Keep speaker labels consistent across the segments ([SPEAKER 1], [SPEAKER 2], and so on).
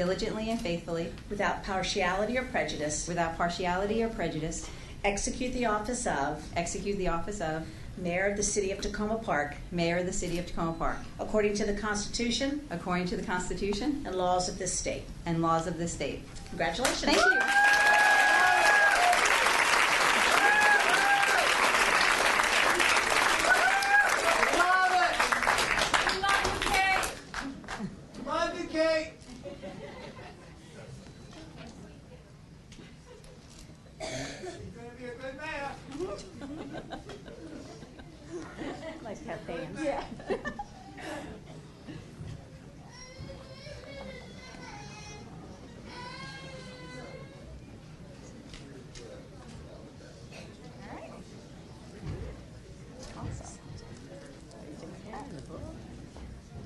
[SPEAKER 1] diligently and faithfully,
[SPEAKER 2] without partiality or prejudice,
[SPEAKER 1] without partiality or prejudice,
[SPEAKER 2] execute the office of
[SPEAKER 1] execute the office of
[SPEAKER 2] Mayor of the City of Tacoma Park
[SPEAKER 1] Mayor of the City of Tacoma Park,
[SPEAKER 2] according to the Constitution
[SPEAKER 1] according to the Constitution
[SPEAKER 2] and laws of this state.
[SPEAKER 1] and laws of this state.
[SPEAKER 2] Congratulations.
[SPEAKER 1] Thank you.
[SPEAKER 3] Love it! Love the cake! She's gonna be a good mayor.
[SPEAKER 2] Like to have bands.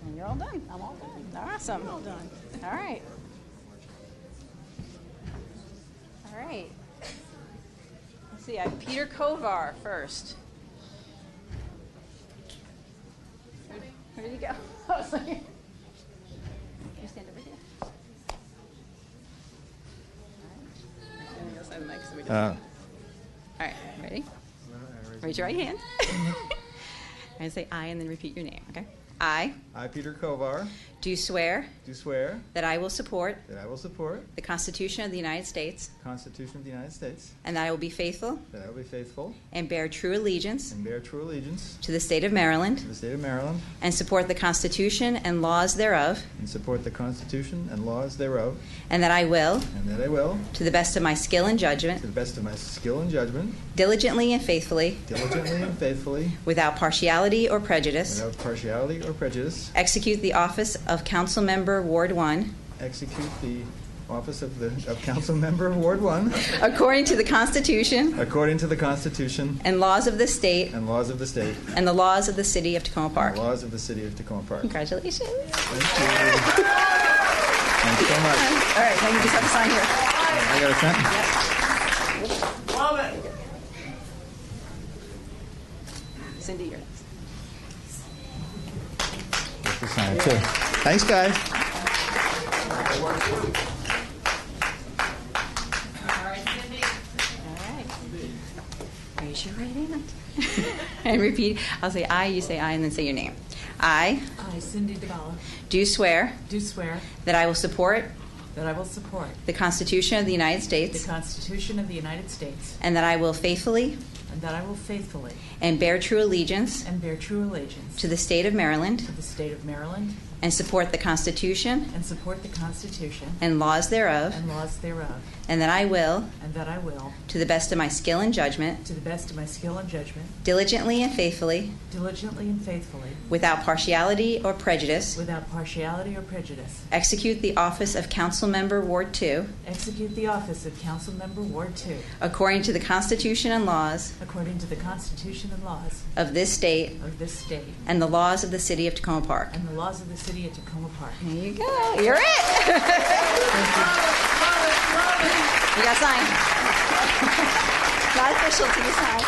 [SPEAKER 4] And you're all done. I'm all done. Awesome. all done. All right. All right. Let's see. I have Peter Kovar first. Where did he go? I was like, you stand over here. All right. And the other side of the mic so we can-
[SPEAKER 5] Uh,
[SPEAKER 4] All right. Ready? Raise your right hand. and say I, and then repeat your name. Okay. I
[SPEAKER 5] I, Peter Kovar,
[SPEAKER 4] do swear.
[SPEAKER 5] do swear
[SPEAKER 4] That I will support
[SPEAKER 5] that I will support
[SPEAKER 4] the Constitution of the United States
[SPEAKER 5] the Constitution of the United States,
[SPEAKER 4] and that I will be faithful
[SPEAKER 5] that I will be faithful
[SPEAKER 4] and bear true allegiance
[SPEAKER 5] and bear true allegiance
[SPEAKER 4] to the state of
[SPEAKER 5] to
[SPEAKER 4] Maryland
[SPEAKER 5] the state of Maryland,
[SPEAKER 4] and support the Constitution and laws thereof,
[SPEAKER 5] and support the Constitution and laws thereof,
[SPEAKER 4] and that I will,
[SPEAKER 5] and that I will,
[SPEAKER 4] to the best of my skill and
[SPEAKER 5] to
[SPEAKER 4] judgment,
[SPEAKER 5] the best of my skill and judgment,
[SPEAKER 4] diligently and faithfully,
[SPEAKER 5] diligently and faithfully,
[SPEAKER 4] without partiality or prejudice,
[SPEAKER 5] without partiality or prejudice,
[SPEAKER 4] execute the office of Council Member Ward 1
[SPEAKER 5] execute the office of the of council member of Ward One
[SPEAKER 4] according to the Constitution
[SPEAKER 5] according to the Constitution
[SPEAKER 4] and laws of the state
[SPEAKER 5] and laws of the state,
[SPEAKER 4] and the laws of the city of Tacoma
[SPEAKER 5] and
[SPEAKER 4] Park.
[SPEAKER 5] the laws of the city of Tacoma Park.
[SPEAKER 4] Congratulations.
[SPEAKER 5] Thank you. Thanks so much.
[SPEAKER 4] All right, now you just have to sign here.
[SPEAKER 5] I got a sentence.
[SPEAKER 3] Love it!
[SPEAKER 4] Cindy, you're next.
[SPEAKER 5] to sign it, too. Thanks, guys.
[SPEAKER 4] All right. Raise your right hand. and repeat. I'll say I, you say I, and then say your name. I
[SPEAKER 6] I, Cindy DeBala,
[SPEAKER 4] do swear
[SPEAKER 6] do swear
[SPEAKER 4] that I will support
[SPEAKER 6] that I will support
[SPEAKER 4] the Constitution of the United
[SPEAKER 6] the
[SPEAKER 4] States
[SPEAKER 6] Constitution of the United States
[SPEAKER 4] and that I will faithfully
[SPEAKER 6] and that I will faithfully
[SPEAKER 4] and bear true allegiance
[SPEAKER 6] and bear true allegiance
[SPEAKER 4] to the state of Maryland
[SPEAKER 6] to the state of Maryland
[SPEAKER 4] and support the Constitution
[SPEAKER 6] and support the Constitution
[SPEAKER 4] and laws thereof,
[SPEAKER 6] and laws thereof,
[SPEAKER 4] and that I will,
[SPEAKER 6] and that I will,
[SPEAKER 4] to the best of my skill and judgment,
[SPEAKER 6] to the best of my skill and judgment,
[SPEAKER 4] diligently and faithfully,
[SPEAKER 6] diligently and faithfully,
[SPEAKER 4] without partiality or prejudice,
[SPEAKER 6] without partiality or prejudice,
[SPEAKER 4] execute the office of Council Member Ward 2
[SPEAKER 6] execute the office of Council Member Ward Two
[SPEAKER 4] according to the Constitution and laws
[SPEAKER 6] according to the Constitution and laws
[SPEAKER 4] of this state
[SPEAKER 6] of this state
[SPEAKER 4] and the laws of the city of Tacoma Park.
[SPEAKER 6] and the laws of the city of Tacoma Park.
[SPEAKER 4] There you go. You're it. you got signed. Not official till you sign.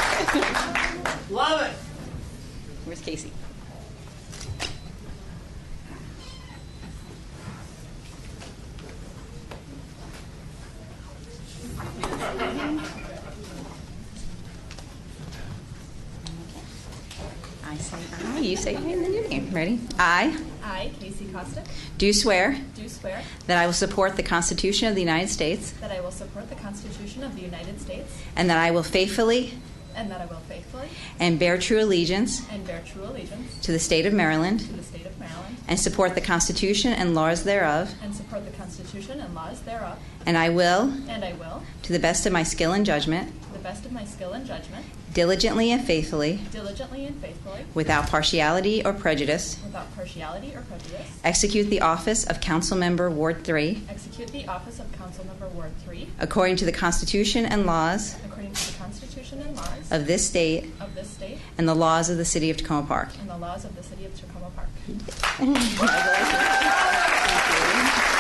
[SPEAKER 3] Love it!
[SPEAKER 4] Where's Casey? I say aye, you say aye, and then your name. Ready? I
[SPEAKER 7] I, Casey Costick,
[SPEAKER 4] do swear
[SPEAKER 7] do swear
[SPEAKER 4] that I will support the Constitution of the United States
[SPEAKER 7] that I will support the Constitution of the United States
[SPEAKER 4] and that I will faithfully
[SPEAKER 7] and that I will faithfully
[SPEAKER 4] and bear true allegiance
[SPEAKER 7] and bear true allegiance
[SPEAKER 4] to the state of Maryland
[SPEAKER 7] to the state of Maryland
[SPEAKER 4] and support the Constitution and laws thereof,
[SPEAKER 7] and support the Constitution and laws thereof,
[SPEAKER 4] and I will,
[SPEAKER 7] and I will,
[SPEAKER 4] to the best of my skill and judgment,
[SPEAKER 7] to the best of my skill and judgment,
[SPEAKER 4] diligently and faithfully,
[SPEAKER 7] diligently and faithfully,
[SPEAKER 4] without partiality or prejudice,
[SPEAKER 7] without partiality or prejudice,
[SPEAKER 4] execute the office of Council Member Ward 3
[SPEAKER 7] execute the office of Councilmember Ward 3
[SPEAKER 4] according to the Constitution and laws
[SPEAKER 7] according to the Constitution and laws
[SPEAKER 4] of this state
[SPEAKER 7] of this state
[SPEAKER 4] and the laws of the city of Tacoma Park.
[SPEAKER 7] and the laws of the city of Tacoma Park.
[SPEAKER 4] Congratulations. Thank you.